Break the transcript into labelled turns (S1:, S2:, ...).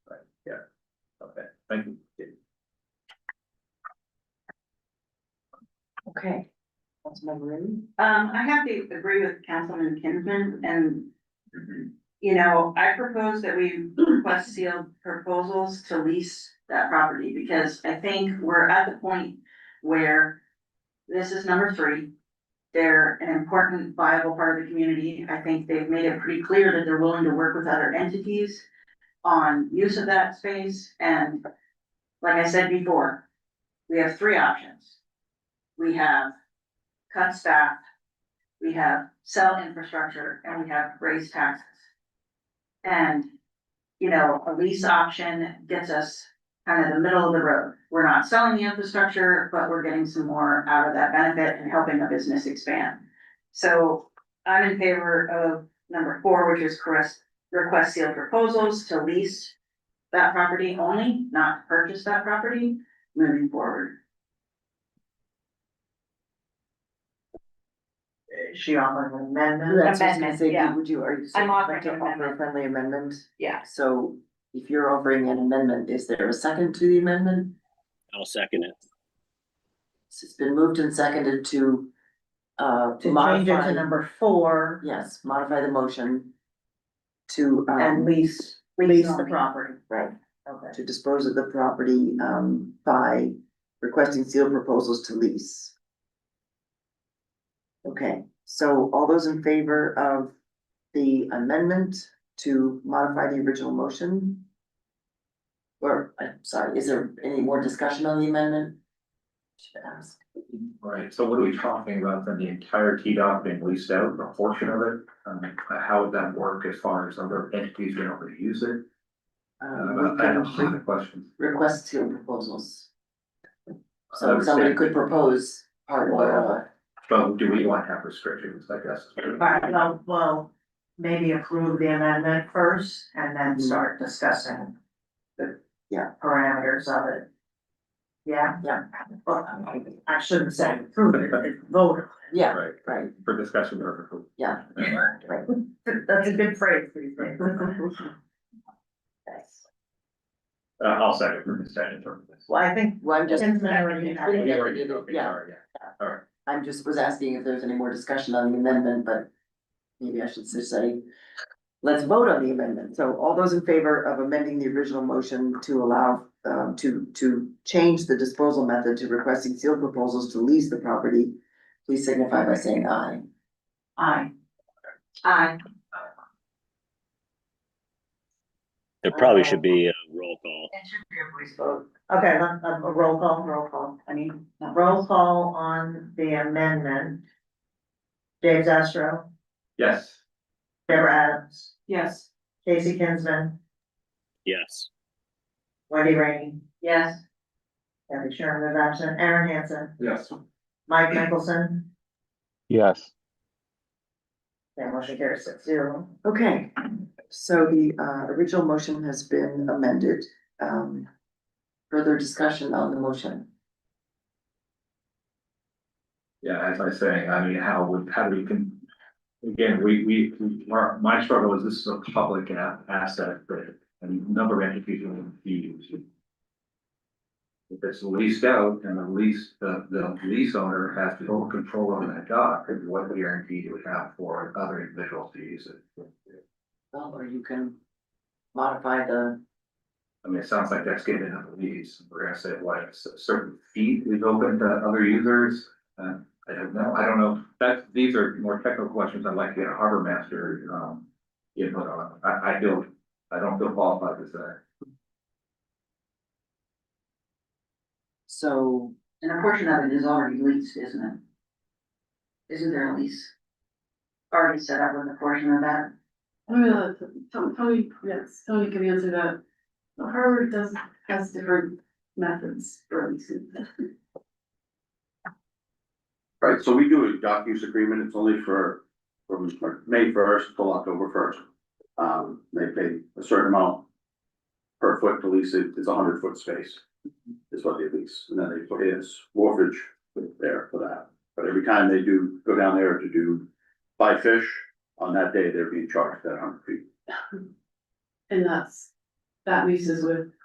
S1: Thank you.
S2: Okay.
S3: Um, I have to agree with Councilman Kinsman and. You know, I propose that we request sealed proposals to lease that property because I think we're at the point where. This is number three. They're an important viable part of the community. I think they've made it pretty clear that they're willing to work with other entities. On use of that space and. Like I said before. We have three options. We have cut staff, we have cell infrastructure, and we have raise taxes. And, you know, a lease option gets us kind of the middle of the road. We're not selling the infrastructure, but we're getting some more out of that benefit and helping a business expand. So I'm in favor of number four, which is request, request sealed proposals to lease that property only, not purchase that property, moving forward.
S4: Is she offering an amendment?
S2: That's what I was gonna say,
S5: Amendment, yeah.
S2: would you, are you saying you'd
S5: offering
S2: like to
S5: an
S2: offer a
S5: amendment.
S2: friendly amendment?
S5: Yeah.
S2: So if you're offering an amendment, is there a second to the amendment?
S6: I'll second it.
S2: It's been moved and seconded to uh
S4: To change it to
S2: modify,
S4: number four
S2: yes, modify the motion to
S4: and
S2: um,
S4: lease,
S3: Lease
S4: lease the
S3: only.
S4: property.
S2: right,
S4: Okay.
S2: to dispose of the property um by requesting sealed proposals to lease. Okay, so all those in favor of the amendment to modify the original motion? Or, I'm sorry, is there any more discussion on the amendment? Should ask.
S1: Right, so what are we talking about then, the entire TDOT being leased out, a portion of it? Um, how would that work as far as other entities being able to use it?
S2: Um,
S1: Uh,
S2: we
S1: I have a
S2: can
S1: lot of questions.
S2: request sealed proposals,
S1: I
S2: so
S1: understand.
S2: somebody could propose part
S1: uh,
S2: of
S1: But do we want to have restrictions, I guess?
S4: Right, well, uh, well, maybe approve the amendment first and then start discussing the
S2: Yeah.
S4: parameters of it. Yeah?
S2: Yeah. um,
S4: Well, I shouldn't say approve it, it's vote.
S2: yeah,
S1: Right,
S2: right,
S1: for discussion purposes. Uh,
S2: yeah, right.
S4: That's a good phrase, please. Well,
S1: Uh, I'll second for discussion purposes.
S4: I think.
S2: Well, I'm just,
S4: Kinsman already had it.
S1: We already did, okay,
S2: Yeah.
S1: sorry, All right,
S2: I'm just was asking if there's any more discussion on the amendment, but maybe I should just say, let's vote on the amendment. So all those in favor of amending the original motion to allow, um, to, to change the disposal method to requesting sealed proposals to lease the property, please signify by saying aye.
S4: Aye.
S3: Aye.
S6: There probably should be a roll call.
S3: It should be a voice
S4: vote. Okay, let- let- a roll call, roll call.
S3: I mean, not-
S4: Roll call on the amendment. Dave Zastro,
S1: yes.
S4: Deborah Adams,
S3: yes.
S4: Casey Kinsman,
S6: Yes.
S4: Wendy Rainey,
S3: Yes.
S4: Debbie Sherman is absent, Aaron Hanson,
S1: Yes.
S4: Mike Mickelson.
S7: Yes.
S4: That motion carries six zero.
S2: Okay, so the, uh, original motion has been amended. Um, further discussion on the motion?
S1: Yeah, as I was saying, I mean, how would, how do we can, again, we, we, we- our, my struggle is this is a public a- asset, but a number of entities will be using. If it's leased out and the lease, the, the lease owner has total control over that dock, and what guarantee do we have for other individuals to use it?
S2: Well, or you can modify the
S1: I mean, it sounds like that's getting into the weeds. We're gonna say, what, a cer- certain feet we've opened to other users? Uh, I don't know, I don't know. That's, these are more technical questions I'd like to get a harbor master, um, input on. I, I feel, I don't feel qualified to say.
S2: So,
S3: And a portion of it is already leased, isn't it? Isn't there a lease? Already set up with a portion of that?
S8: I don't know, Tony, Tony, yes, Tony can answer that. But Harvard does, has different methods for leasing.
S9: Right, so we do a dock use agreement, it's only for, from May first till October first. Um, they pay a certain amount per foot to lease it, it's a hundred foot space is what they lease, and then they put in wharfage there for that. But every time they do go down there to do, buy fish, on that day, they're being charged that hundred feet.
S8: And that's, that leases with